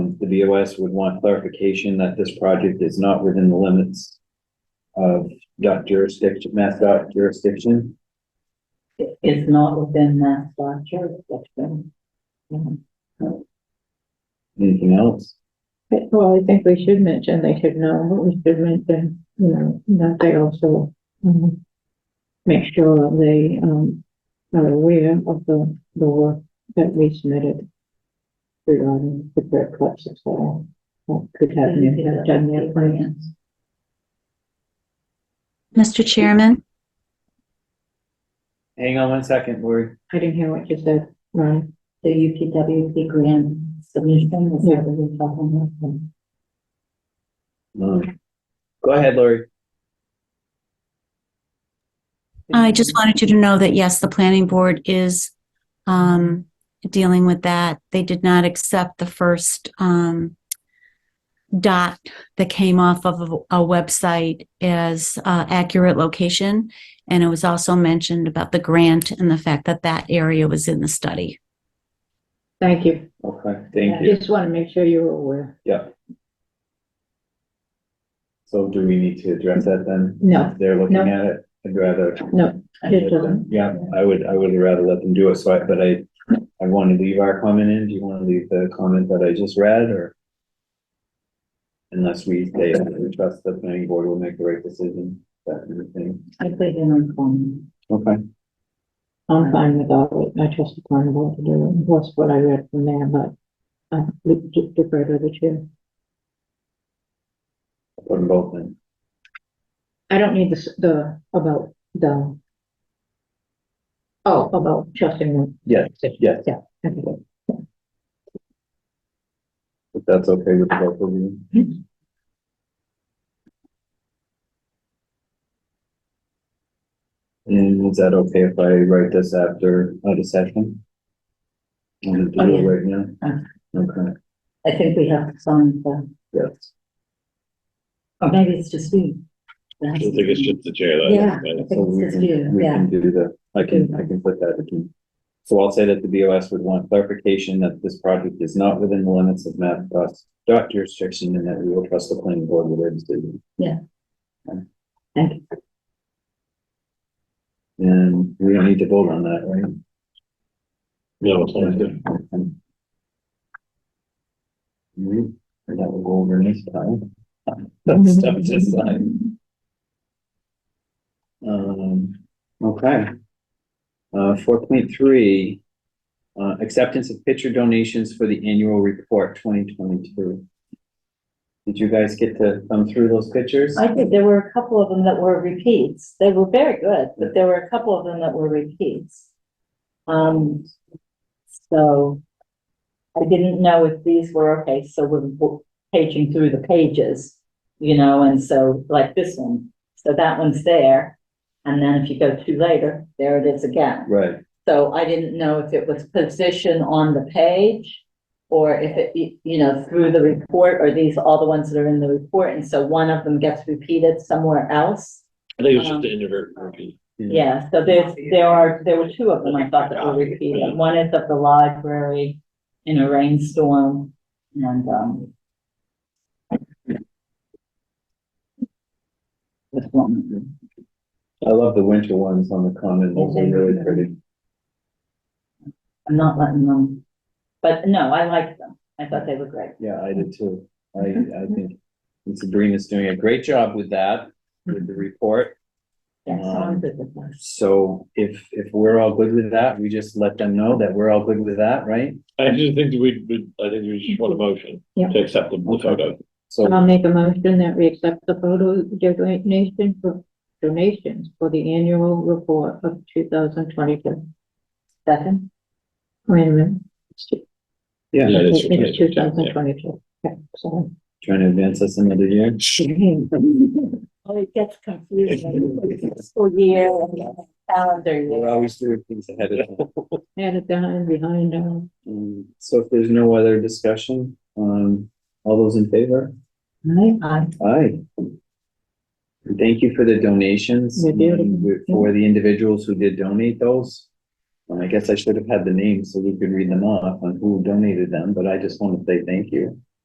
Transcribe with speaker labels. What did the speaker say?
Speaker 1: BOS would want clarification that this project is not within the limits of dot jurisdiction, mass dot jurisdiction.
Speaker 2: It's not within that spot jurisdiction. Um,
Speaker 1: Anything else?
Speaker 2: but, Well, I think we should mention, they should know, but we should mention, you know, that they also, um, make sure that they, um, are aware of the, the work that we submitted regarding the brick clips, et cetera, what could have been done their plans.
Speaker 3: Mr. Chairman,
Speaker 1: Hang on one second, Lori.
Speaker 2: I didn't hear what you said, Ron.
Speaker 4: The UPWP grant submission, is
Speaker 2: Yeah.
Speaker 4: that what we're talking about?
Speaker 1: Um, Go ahead, Lori.
Speaker 3: I just wanted you to know that yes, the planning board is um, dealing with that. They did not accept the first um, dot that came off of a- a website as uh, accurate location. And it was also mentioned about the grant and the fact that that area was in the study.
Speaker 2: Thank you.
Speaker 1: Okay, thank
Speaker 2: I
Speaker 1: you.
Speaker 2: Just want to make sure you were aware.
Speaker 1: Yeah. So do we need to address that then?
Speaker 2: No.
Speaker 1: If They're looking
Speaker 2: No.
Speaker 1: at it. I'd rather.
Speaker 2: No, it doesn't.
Speaker 1: Yeah, I would, I would rather let them do it, so I, but I, I want to leave our comment in, do you want to leave the comment that I just read, or? Unless we say, that we trust the planning board will make the right decision, that kind of thing.
Speaker 4: I put in on phone.
Speaker 1: Okay.
Speaker 2: I'm fine with all of it. I trust the planning board to do it. That's what I read from there, but um, I defer to the chair.
Speaker 1: Put them both in,
Speaker 2: I don't need this, the, about the. Oh, about trusting them.
Speaker 1: yes, yes,
Speaker 2: Okay.
Speaker 1: if that's okay with both of you. And is that okay if I write this after, out of session? I'm
Speaker 4: Oh,
Speaker 1: gonna do it
Speaker 4: yeah.
Speaker 1: right now?
Speaker 4: Uh-huh.
Speaker 1: Okay.
Speaker 4: I think we have to sign the,
Speaker 1: Yes.
Speaker 4: or maybe it's just we.
Speaker 5: I think it's just the jail.
Speaker 4: Yeah.
Speaker 1: So we
Speaker 4: It's
Speaker 1: can,
Speaker 4: just you,
Speaker 1: we
Speaker 4: yeah.
Speaker 1: can do the, I can, I can put that in. So I'll say that the BOS would want clarification that this project is not within the limits of map dot dot jurisdiction and that we will trust the planning board with their decision.
Speaker 4: Yeah.
Speaker 1: Okay.
Speaker 4: Thank you.
Speaker 1: And we don't need to vote on that, right?
Speaker 5: No, it's not good.
Speaker 1: Okay. We- and that will go over next time. That stuff just signed. Um, okay. Uh, four point three. Uh, acceptance of picture donations for the annual report twenty twenty-two. Did you guys get to thumb through those pictures?
Speaker 4: I think there were a couple of them that were repeats. They were very good, but there were a couple of them that were repeats. Um, so I didn't know if these were okay, so we're w- paging through the pages, you know, and so like this one. So that one's there. And then if you go to later, there it is again.
Speaker 1: Right,
Speaker 4: So I didn't know if it was position on the page or if it, y- you know, through the report, or these, all the ones that are in the report, and so one of them gets repeated somewhere else.
Speaker 5: I think it was just the inadvertent repeat.
Speaker 1: Mm-hmm.
Speaker 4: Yeah, so there's, there are, there were two of them I thought that were repeated. One is of the library in a rainstorm and, um, this one,
Speaker 1: I love the winter ones on the common, those are really pretty.
Speaker 4: I'm not letting them, but no, I liked them. I thought they were great.
Speaker 1: Yeah, I did too. I, I think and Sabrina's doing a great job with that, with the report.
Speaker 4: Yeah, so I'm good with them.
Speaker 1: So if, if we're all good with that, we just let them know that we're all good with that, right?
Speaker 5: I do think that we, we- I think we just want a motion
Speaker 2: Yeah.
Speaker 5: to accept the the photo.
Speaker 1: So,
Speaker 2: I'll make a motion that we accept the photo donation for donations for the annual report of two thousand twenty-two.
Speaker 4: Second?
Speaker 2: Wait a minute.
Speaker 1: yeah,
Speaker 5: Yeah, that's-
Speaker 2: It's two thousand
Speaker 5: that's-
Speaker 2: twenty-two. Okay, so.
Speaker 1: trying to advance us another year.
Speaker 4: Oh, it gets confusing. School year and calendar
Speaker 1: We're
Speaker 4: year.
Speaker 1: always doing things ahead of time.
Speaker 2: Add it down behind, um,
Speaker 1: Um, So if there's no other discussion, um, all those in favor?
Speaker 4: Aye.
Speaker 1: Aye. And Thank you for the donations.
Speaker 2: You're beautiful.
Speaker 1: and For the individuals who did donate those. Um, And I guess I should have had the names so we could read them off on who donated them, but I just want to say thank you.